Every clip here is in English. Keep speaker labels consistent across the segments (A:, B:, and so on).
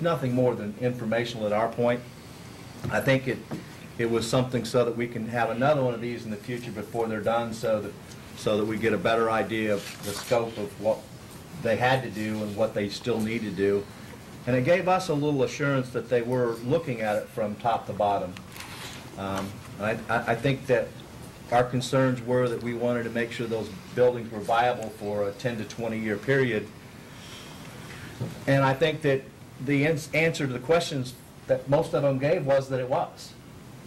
A: nothing more than informational at our point. I think it, it was something so that we can have another one of these in the future before they're done, so that, so that we get a better idea of the scope of what they had to do and what they still need to do. And it gave us a little assurance that they were looking at it from top to bottom. Um, I, I I think that our concerns were that we wanted to make sure those buildings were viable for a 10 to 20-year period. And I think that the ans- answer to the questions that most of them gave was that it was,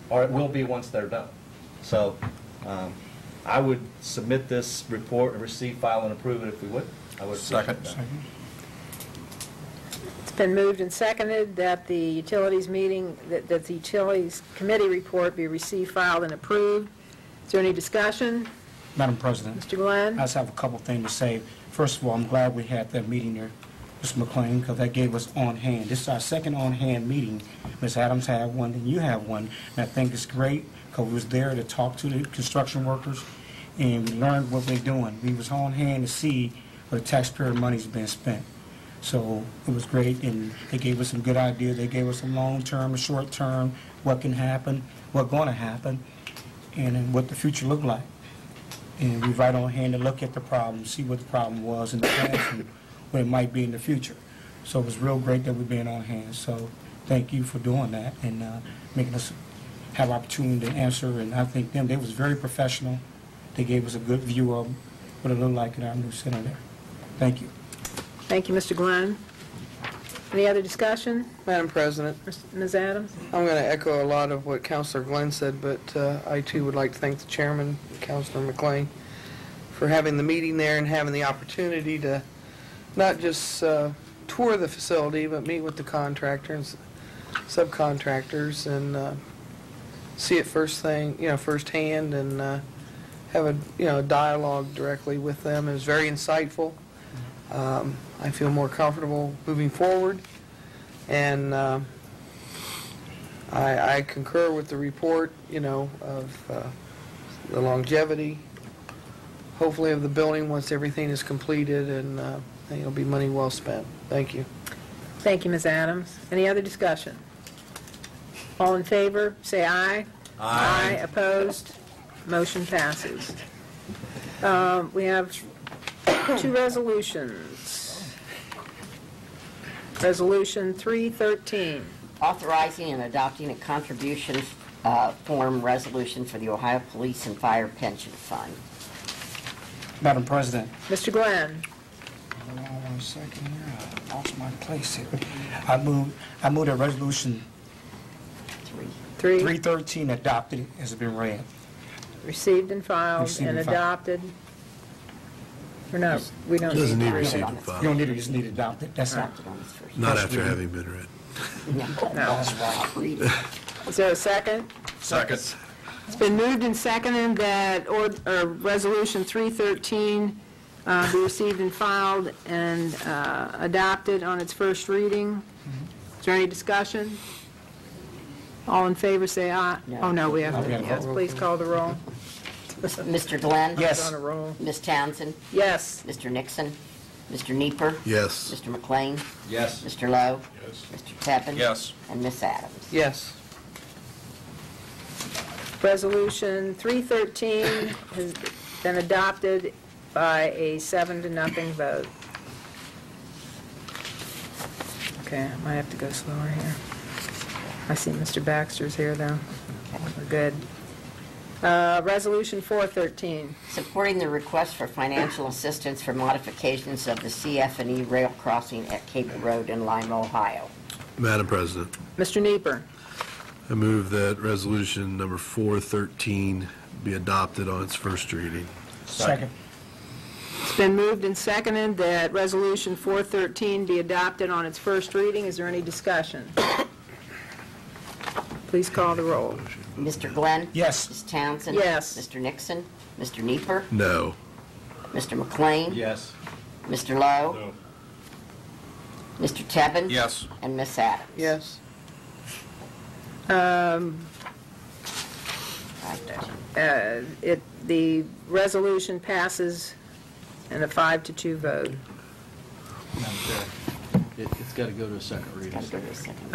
A: or it will be once they're done. So um, I would submit this report, and receive, file, and approve it if we would. I would appreciate that.
B: It's been moved and seconded that the utilities meeting, that that the utilities committee report be received, filed, and approved. Is there any discussion?
C: Madam President,
B: Mr. Glenn?
C: I just have a couple things to say. First of all, I'm glad we had that meeting there, Ms. McLean, because that gave us on-hand. This is our second on-hand meeting. Ms. Adams had one, and you have one, and I think it's great, because we was there to talk to the construction workers, and we learned what they're doing. We was on-hand to see where the taxpayer money's being spent. So it was great, and they gave us some good ideas. They gave us some long-term, short-term, what can happen, what gonna happen, and then what the future look like and we right on hand to look at the problem, see what the problem was in the past and what it might be in the future. So it was real great that we've been on hand, so thank you for doing that and uh, making us have opportunity to answer, and I think them, they was very professional. They gave us a good view of what it looked like in our new center there. Thank you.
B: Thank you, Mr. Glenn. Any other discussion?
D: Madam President,
B: Ms. Adams?
D: I'm going to echo a lot of what Counselor Glenn said, but uh, I too would like to thank the chairman, Counselor McLean, for having the meeting there and having the opportunity to not just uh, tour the facility, but meet with the contractors, subcontractors, and uh, see it first thing, you know, firsthand, and uh, have a, you know, dialogue directly with them. It was very insightful. Um, I feel more comfortable moving forward, and uh, I, I concur with the report, you know, of uh, the longevity, hopefully of the building once everything is completed, and uh, I think it'll be money well spent. Thank you.
B: Thank you, Ms. Adams. Any other discussion? All in favor, say aye. Aye. opposed, motion passes. Um, We have two resolutions. Resolution 313.
E: authorizing and adopting a contribution uh, form resolution for the Ohio Police and Fire Pension Fund.
C: Madam President.
B: Mr. Glenn,
C: Hold on one second here, I lost my place here. I move, I move that resolution
E: Three.
B: 3,
C: 313 adopted has been read.
B: received and filed
C: Received
B: and
C: and filed.
B: adopted. Or no, we don't.
F: Doesn't need
E: received
F: receipt
E: and
F: and
C: You don't
F: filed,
C: need it, you just need it adopted, that's it.
E: Adopted on this first.
F: not after having been read.
E: Read it.
B: Is there a second?
F: Seconds.
B: It's been moved and seconded that ord- or Resolution 313 uh, be received and filed and uh, adopted on its first reading. Is there any discussion? All in favor, say aye.
E: No.
B: Oh, no, we have,
C: We have a
B: yes,
C: roll
B: please call the roll.
E: Mr. Glenn?
C: Yes.
B: On a roll.
E: Ms. Townsend?
B: Yes,
E: Mr. Nixon? Mr. Nieper,
F: Yes,
E: Mr. McLean?
A: Yes.
E: Mr. Lowe? Yes. Mr. Tevin?
G: Yes.
E: And Miss Adams.
D: Yes.
B: Resolution 313 has been adopted by a seven to nothing vote. Okay, I might have to go slower here. I see Mr. Baxter's here, though. We're good. Uh, Resolution 413.
E: Supporting the request for financial assistance for modifications of the CF&E E rail crossing at Cable Road in Lima, Ohio.
F: Madam President,
B: Mr. Nieper.
F: I move that resolution number 413 be adopted on its first reading.
C: Second.
B: It's been moved and seconded that Resolution 413 be adopted on its first reading. Is there any discussion? Please call the roll.
E: Mr. Glenn?
C: Yes.
E: Ms. Townsend?
B: Yes.
E: Mr. Nixon? Mr. Nieper,
F: No.
E: Mr. McLean?
A: Yes.
E: Mr. Lowe? Mr. Tevin?
G: Yes.
E: And Miss Adams?
D: Yes.
E: Five to two.
B: Uh, it, the resolution passes in a five to two vote.
C: Madam Chair.
G: It- It's got to go to a second reading.
E: Gotta go to a second.